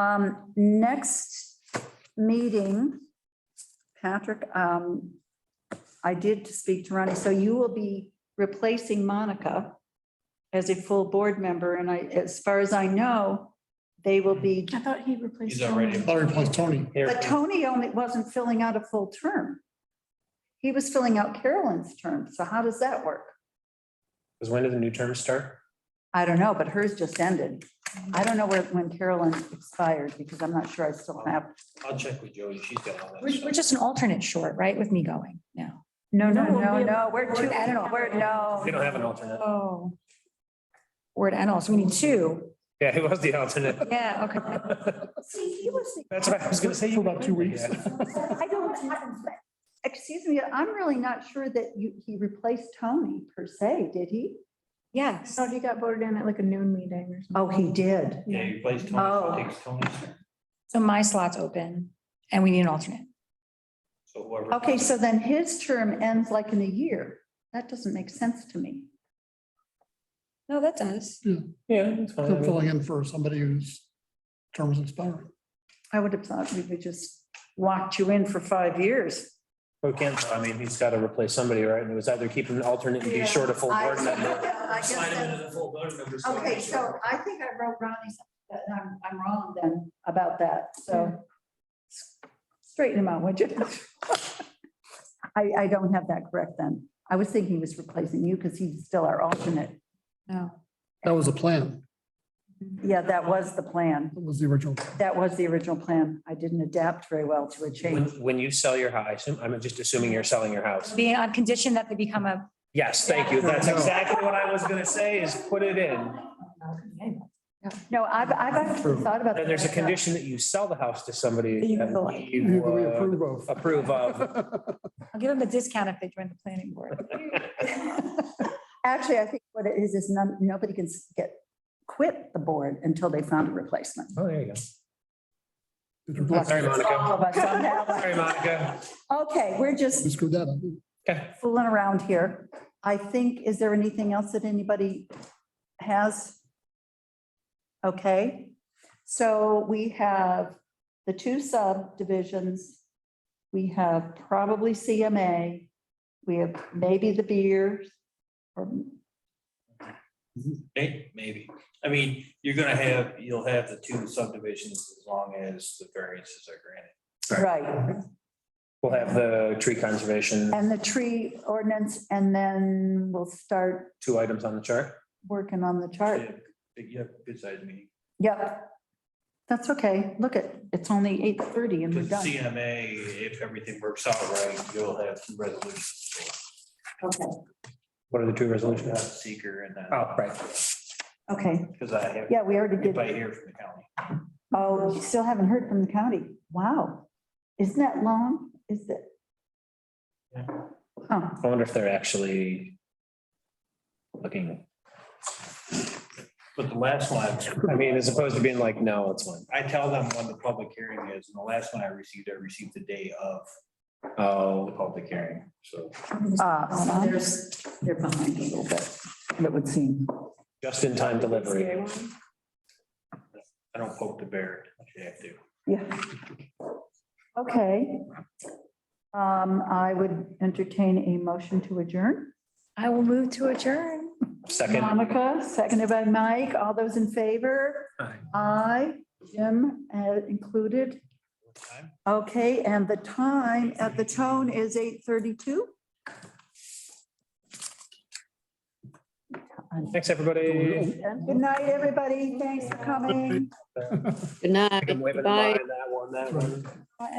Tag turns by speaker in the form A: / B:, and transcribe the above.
A: Um, next meeting, Patrick, um, I did speak to Ronnie, so you will be replacing Monica as a full board member, and I, as far as I know, they will be,
B: I thought he replaced.
C: He's already-
B: Tony.
D: Larry plus Tony.
A: but Tony only wasn't filling out a full term. He was filling out Carolyn's term, so how does that work?
C: Because when do the new terms start?
A: I don't know, but hers just ended. I don't know where, when Carolyn expired, because I'm not sure I still have,
C: I'll check with Jody. She's got all that
B: We're, we're
C: stuff.
B: just an alternate short, right, with me going now?
A: no, no,
B: No, we'll
A: no,
B: be-
A: no, we're two, we're, no.
C: We don't have an alternate.
B: Oh. Word and also, we need two.
C: Yeah, who was the alternate?
B: Yeah, okay.
A: See, he was the-
C: That's what I was gonna say.
D: For about two weeks.
A: I don't, I- excuse me, I'm really not sure that you, he replaced Tony per se, did he?
B: Yes.
E: he got voted in at like a noon meeting or something.
A: Oh, he did.
C: Yeah, you place Tony,
A: Oh.
C: so it takes Tony's.
B: So my slot's open and we need an alternate.
C: So whoever.
A: Okay, so then his term ends like in a year. That doesn't make sense to me.
B: No, that does.
C: Yeah, it's
D: They're
C: fine.
D: filling in for somebody whose term is expiring.
A: I would have thought we would just locked you in for five years.
C: We can't, I mean, he's got to replace somebody, right? And it was either keep an alternate and be short a full board member. Slide him into the full board member. slot.
A: Okay, so I think I wrote Ronnie's, but I'm, I'm wrong then about that,
C: Hmm.
A: so. Straighten him out, would you? I, I don't have that correct then. I was thinking he was replacing you because he's still our alternate.
B: No.
D: That was the plan.
A: Yeah, that was the plan.
D: That was the original.
A: That was the original plan. I didn't adapt very well to a
C: When,
A: change.
C: when you sell your house, I assume, I'm just assuming you're selling your house.
B: Being on condition that they become a.
C: Yes, thank you. That's exactly what I was gonna say is put it in.
A: No, I've, I've actually thought about.
C: And there's a
A: that.
C: condition that you sell the house to somebody that
D: Who
C: you uh,
D: do we
C: would
D: approve of?
C: approve of.
B: I'll give them a discount if they join the planning board.
A: Actually, I think what it is, is none, nobody can s- get, quit the board until they found a replacement.
C: Oh, there you go.
D: Did you
C: Oh, Sorry, Monica.
A: All of us on that one.
C: Sorry, Monica.
A: Okay, we're just
D: screw that up?
A: fooling around here. I think, is there anything else that anybody has? Okay, so we have the two subdivisions. We have probably CMA. We have maybe the beers. or
F: May- Maybe. I mean, you're gonna have, you'll have the two subdivisions as long as the variances are granted.
A: Right,
C: We'll have the tree conservation,
A: and the tree ordinance, and then we'll start
C: two items on the chart.
A: working on the chart.
F: Yeah, But you have besides me,
A: Yep. That's okay. Look at, it's only 8:30 and we're
F: with
A: done.
F: CMA, if everything works out right, you'll have two resolutions.
A: Okay,
C: What are the two
F: Not
C: resolutions?
F: Seeker and that,
C: Oh, right.
A: okay.
F: because I have,
A: Yeah, we already did.
F: if I hear from the county.
A: Oh, you still haven't heard from the county? Wow. Isn't that long? Is it?
F: Yeah.
A: Huh.
C: I wonder if they're actually looking,
F: But the last one,
C: I mean, as opposed to being like, no, it's one.
F: I tell them when the public hearing is, and the last one I received, I received the day of the
C: Oh,
F: public hearing, so.
A: Uh, so there's- They're behind a little bit, it would seem.
C: just in time delivery.
F: I don't poke the bear, if you have to.
A: Yeah. Okay. Um, I would entertain a motion to adjourn.
B: I will move to adjourn.
C: Second,
A: Monica, seconded by Mike. All those in favor?
C: Aye.
A: Aye, Jim uh, included. Okay, and the time at the tone is 8:32?
C: thanks, everybody.
A: And Good night, everybody. Thanks for coming.
C: I'm waving
G: Bye.
C: That one, that one.